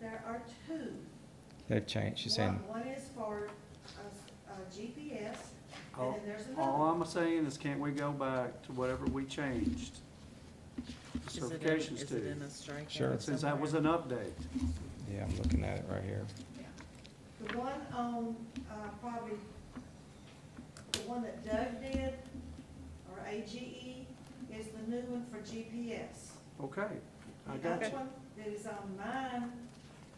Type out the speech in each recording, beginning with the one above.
There are two. They've changed, she's saying, One one is for uh, s- uh, GPS, and All then there's Oh, all another. I'm saying is can't we go back to whatever we changed? the Is it in- Certifications Is it in to, a strikeout? Sure. since that was somewhere? an update. yeah, I'm looking at it right here. The one on, uh, probably, the one that Doug did, or AGE, is the new one for GPS. Okay, I The got other you. one that is on mine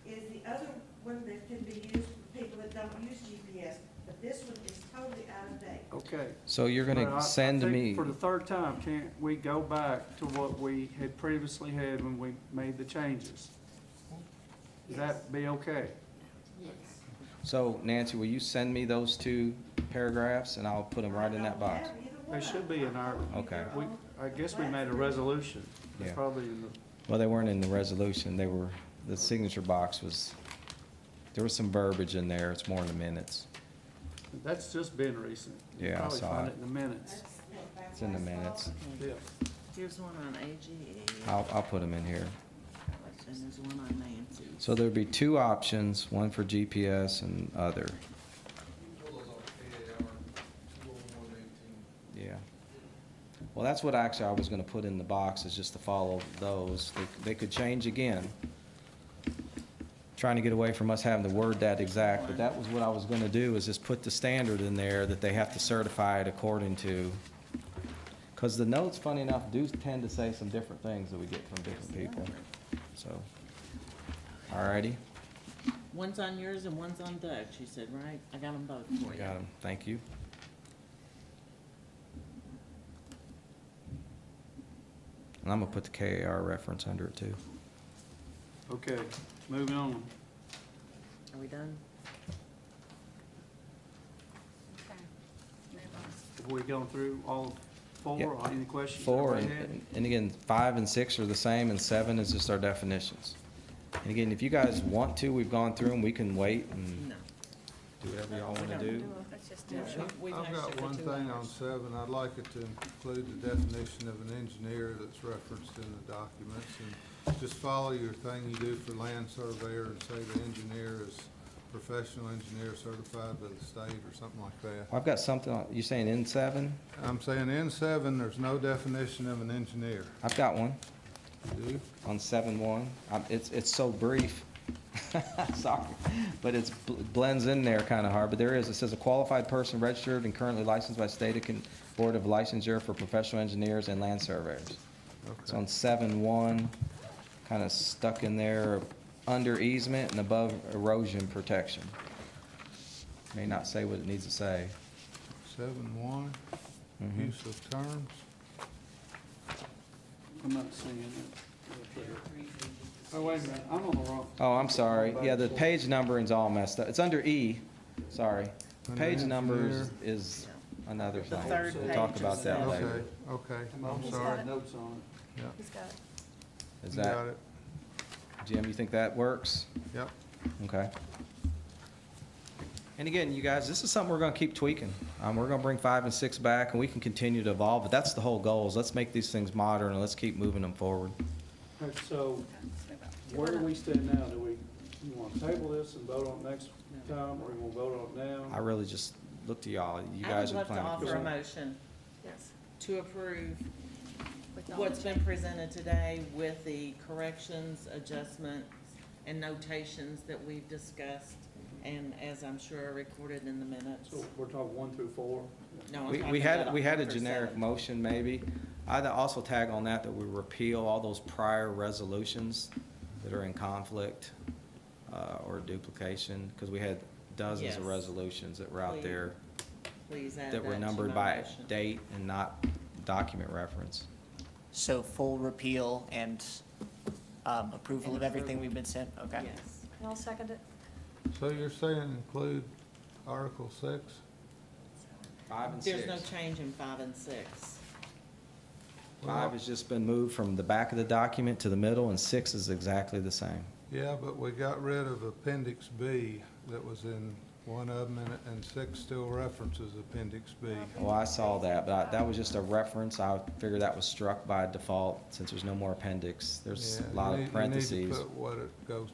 is the other one that can be used for people that don't use GPS, but this one is totally out of date. Okay. So you're But I- I gonna send think me, For the third time, can't we go back to what we had previously had when we made the changes? Does that be okay? so Nancy, will you send me those two paragraphs and I'll put them right in that box? They should be in our- Okay. We, I guess we made a resolution. It's Yeah. probably in the, Well, they weren't in the resolution, they were, the signature box was, there was some verbiage in there, it's more in the minutes. that's just been recent. You Yeah, I probably saw find it. In the minutes, It's in the minutes. yeah. Here's one on AGE. I'll, I'll put them in here. And there's one on Nancy. So there'd be two options, one for GPS and other. Yeah. Well, that's what actually I was gonna put in the box, is just to follow those. They, they could change again. Trying to get away from us having to word that exact, but that was what I was gonna do, is just put the standard in there that they have to certify it according to. Cause the notes, funny enough, do tend to say some different things that we get from different people, so. Alrighty, One's on yours and one's on Doug, she said, right? I got them both for we you. got 'em. thank you. And I'm gonna put the KAR reference under it too. Okay, moving on. Are we done? Have we gone through all four, Yep. or any questions? Four, everybody and, and again, five and six are the same, and seven is just our definitions. And again, if you guys want to, we've gone through them, we can wait and No. do whatever y'all wanna do. Let's just I've got one thing on seven, I'd like it to include the definition of an engineer that's referenced in the documents, and just follow your thing you do for land surveyor and say the engineer is professional engineer certified by the state or something like that. I've got something, on- you saying in seven? I'm saying in seven, there's no definition of an engineer, I've got one. do you? on seven one. It's, it's so brief. Sorry, but it's bl- blends in there kind of hard, but there is, it says a qualified person registered and currently licensed by state of Con- board of licensure for professional engineers and land surveyors. It's Okay. on seven one, kind of stuck in there, under easement and above erosion protection. May not say what it needs to say. Seven one, Mhm. use of terms, I'm not seeing it. Oh, wait a minute, I'm on the wrong. Oh, I'm sorry. Yeah, the page numbering's all messed up. It's under E, sorry. Under Page numbers engineer. is another The thing. third We'll talk page about is that that. later. okay, okay, I'm I'm almost sorry, got notes on yeah, He's got it. Is you got that, it, Jim, you think that works? yep. Okay. And again, you guys, this is something we're gonna keep tweaking. Um, we're gonna bring five and six back and we can continue to evolve, but that's the whole goal is let's make these things modern and let's keep moving them forward. it. All right, So where do we stand now? Do we, you want to table this and vote on it next time, or you want to vote on it I now? really just look to y'all. You guys are planning. I would love to offer a commission. motion Yes. to approve With all what's the- been presented today with the corrections, adjustments, and notations that we've discussed, and as I'm sure are recorded in the minutes. So we're talking one through four? No, I'm We, we talking had, about we had a October generic 7th. motion maybe. I'd also tag on that that we repeal all those prior resolutions that are in conflict uh, or duplication, because we had dozens of Yes. resolutions that were out there Please add that were to my numbered by motion. date and not document reference. So full repeal and um, And approval of approval. everything we've been sent? Okay. Yes. And I'll second it. So you're saying include Article six? Five and There's six. no change in five and six. Five has just been moved from the back of the document to the middle, and six is exactly the same. Yeah, but we got rid of Appendix B that was in one of them, and, and six still references Appendix B. Well, I saw that, but I- that was just a reference. I figured that was struck by default since there's no more appendix. There's Yeah, a you lot need- of parentheses. You need to put what it goes